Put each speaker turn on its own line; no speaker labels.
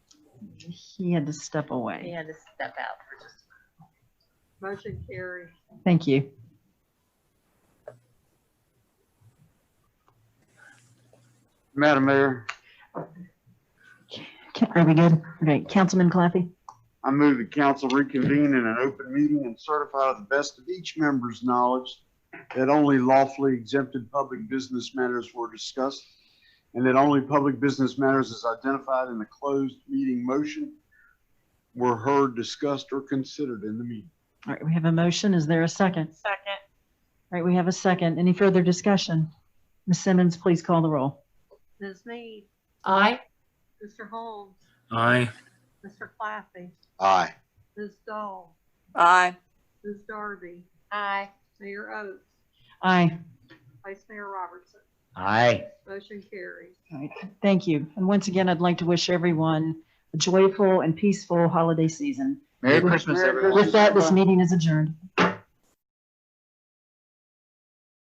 He had to step
He
away.
had to step out for just.
Motion carries.
Thank you.
Madam Mayor,
Ca- Are we good? Okay, Councilman Claffey?
I move the council reconvene in an open meeting and certify to the best of each member's knowledge that only lawfully exempted public business matters were discussed and that only public business matters as identified in the closed meeting motion were heard, discussed, or considered in the meeting.
All right, we have a motion. Is there a second? All
Second.
right, we have a second. Any further discussion? Ms. Simmons, please call the roll.
Ms. Mead,
Aye.
Mr. Holmes,
aye,
Mr. Claffey,
Aye.
Ms. Dahl,
aye,
Ms. Darby,
Aye.
Mayor Oates,
Aye.
Vice Mayor Robertson.
Aye.
Motion carries.
All right, thank you. And once again, I'd like to wish everyone a joyful and peaceful holiday season.
Merry Christmas,
Merry
everyone.
Christmas.
With that, this meeting is adjourned.